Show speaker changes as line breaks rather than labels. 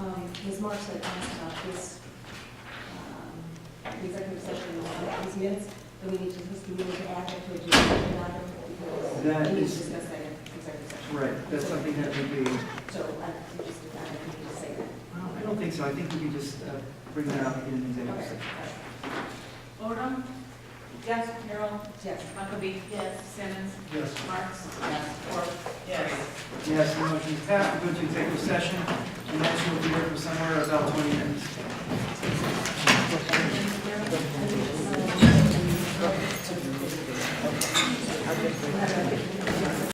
Um, Ms. Marks had asked about this, um, executive session, uh, these minutes, that we need to, we need to add that to agenda item because
That
we need to
is-
discuss that in executive session.
Right, that's something that would be,
So I, we just, I need to say that.
well, I don't think so, I think we could just uh, bring that up in executive
Okay.
session.
Odom? Yes. Carol?
Yes.
Huckabee? Yes. Simmons?
Yes.
Marks? Yes. Ford? Yes.
Yes, the motion is passed, we go to executive session, and that will be here for somewhere about 20 minutes.